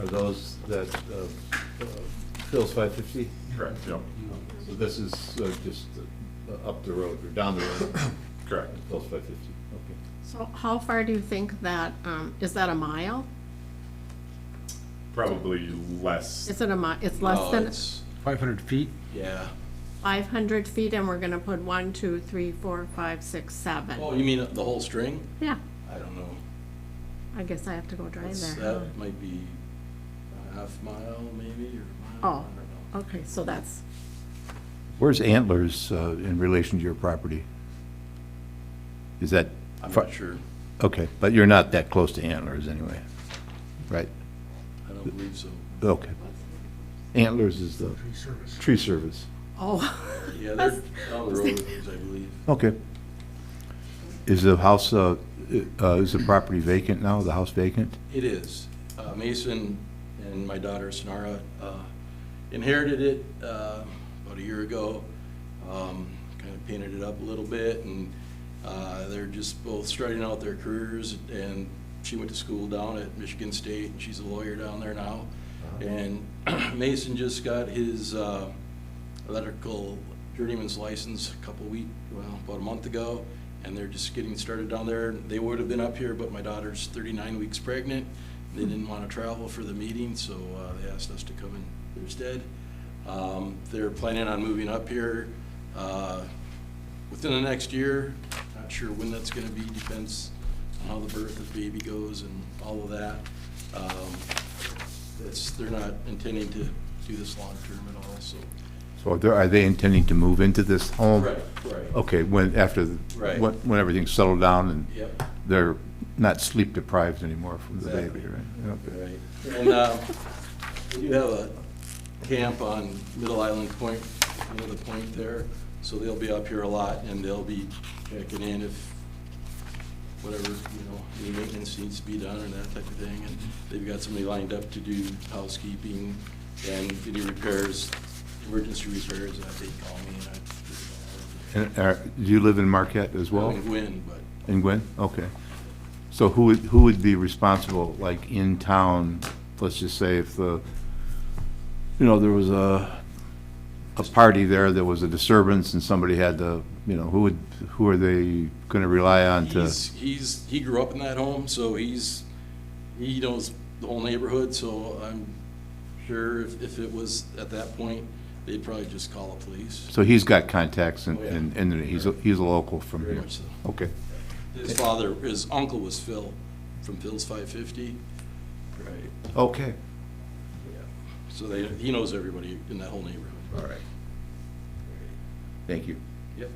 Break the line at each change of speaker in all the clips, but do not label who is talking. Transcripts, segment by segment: are those that, uh, uh, Phil's five fifty?
Correct, yep,
So this is uh, just uh, up the road, or down the road,
correct.
Phil's five fifty, okay.
So how far do you think that, um, is that a mile?
Probably less,
Is it a mi, it's less
No,
than
Oh, it's-
Five hundred feet?
Yeah.
five hundred feet and we're gonna put one, two, three, four, five, six, seven?
Oh, you mean the whole string?
Yeah,
I don't know.
I guess I have to go drive
That's-
there.
That might be a half mile maybe or a
Oh,
mile, I don't know.
okay, so that's,
Where's Antlers uh, in relation to your property? Is that?
I'm
far-
not sure.
Okay, but you're not that close to Antlers anyway, right?
I don't believe so.
Okay. Antlers is the tree service.
oh.
Yeah, they're down the road, I believe.
Okay. Is the house, uh, uh, is the property vacant now, the house vacant?
It is. Uh, Mason and my daughter Sonara uh, inherited it uh, about a year ago. Kind of painted it up a little bit and uh, they're just both starting out their careers. And she went to school down at Michigan State and she's a lawyer down there now. And Mason just got his uh, electrical journeyman's license a couple week, well, about a month ago, and they're just getting started down there. They would have been up here, but my daughter's thirty-nine weeks pregnant. They didn't want to travel for the meeting, so uh, they asked us to come in their stead. Um, They're planning on moving up here uh, within the next year. Not sure when that's going to be, depends on how the birth of the baby goes and all of that. Um, It's, they're not intending to do this long-term at all, so.
So are they- are they intending to move into this home?
Right, right.
Okay, when, after, the-
Right.
when when everything's settled down and
Yep.
they're not sleep deprived anymore from the baby,
Exactly.
right? Okay.
Right. And uh, we do have a camp on Middle Island Point, you know, the point there. So they'll be up here a lot and they'll be checking in if whatever, you know, any maintenance needs to be done or that type of thing. And they've got somebody lined up to do housekeeping and any repairs, emergency repairs, uh, they call me and I.
And are, do you live in Marquette as well?
I'm Gwin, but
In Gwen? Okay. So who would, who would be responsible, like in town, let's just say if the, you know, there was a, a party there, there was a disturbance and somebody had to, you know, who would, who are they gonna rely on to?
he's, he's, he grew up in that home, so he's, he knows the whole neighborhood, so I'm sure if, if it was at that point, they'd probably just call the police.
So he's got contacts and,
Oh, yeah.
and, and he's, a- he's a local from
Very
here.
much so.
Okay.
His father, his uncle was Phil from Phil's Five Fifty. Right.
Okay.
So they, he knows everybody in that whole neighborhood.
All right. Thank you.
Yep.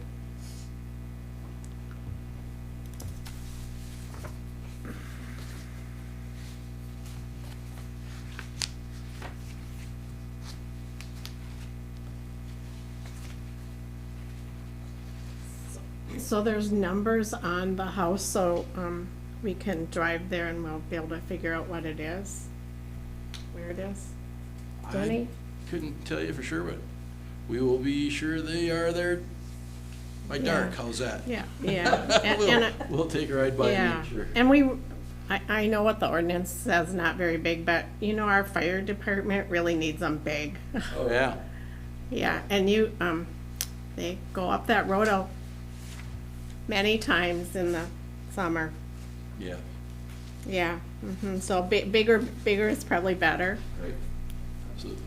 So there's numbers on the house, so, um, we can drive there and we'll be able to figure out what it is, where it is.
I
Danny?
Couldn't tell you for sure, but we will be sure they are there by dark. How's that?
Yeah, yeah. and- and
We'll,
I-
we'll take a ride by and
Yeah,
make sure.
and we, I, I know what the ordinance says, not very big, but you know, our fire department really needs them big.
Oh, yeah.
Yeah, and you, um, they go up that road a- many times in the summer.
Yeah.
Yeah, mhm, so bi- bigger, bigger is probably better.
Right. Absolutely.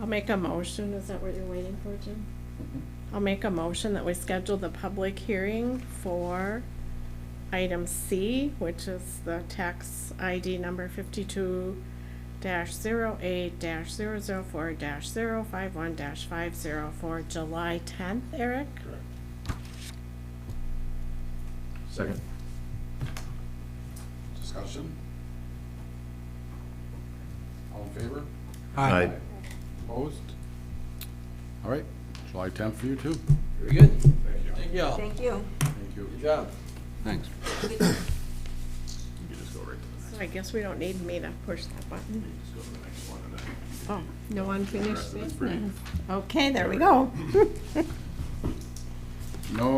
I'll make a motion, is that what you're waiting for, Jim? I'll make a motion that we schedule the public hearing for item C, which is the tax ID number fifty-two dash zero eight dash zero zero four dash zero five one dash five zero for July tenth, Eric?
Second.
Discussion? All in favor?
Aye.
Opposed? All right, July 10th for you too.
Very good. Thank you all.
Thank you.
Thank you.
Good job.
Thanks.
You can just go right to
So I guess we don't need me to push that button.
the, just go to the next one and then.
Oh, no unfinished
That's
business.
pretty.
Okay, there we go.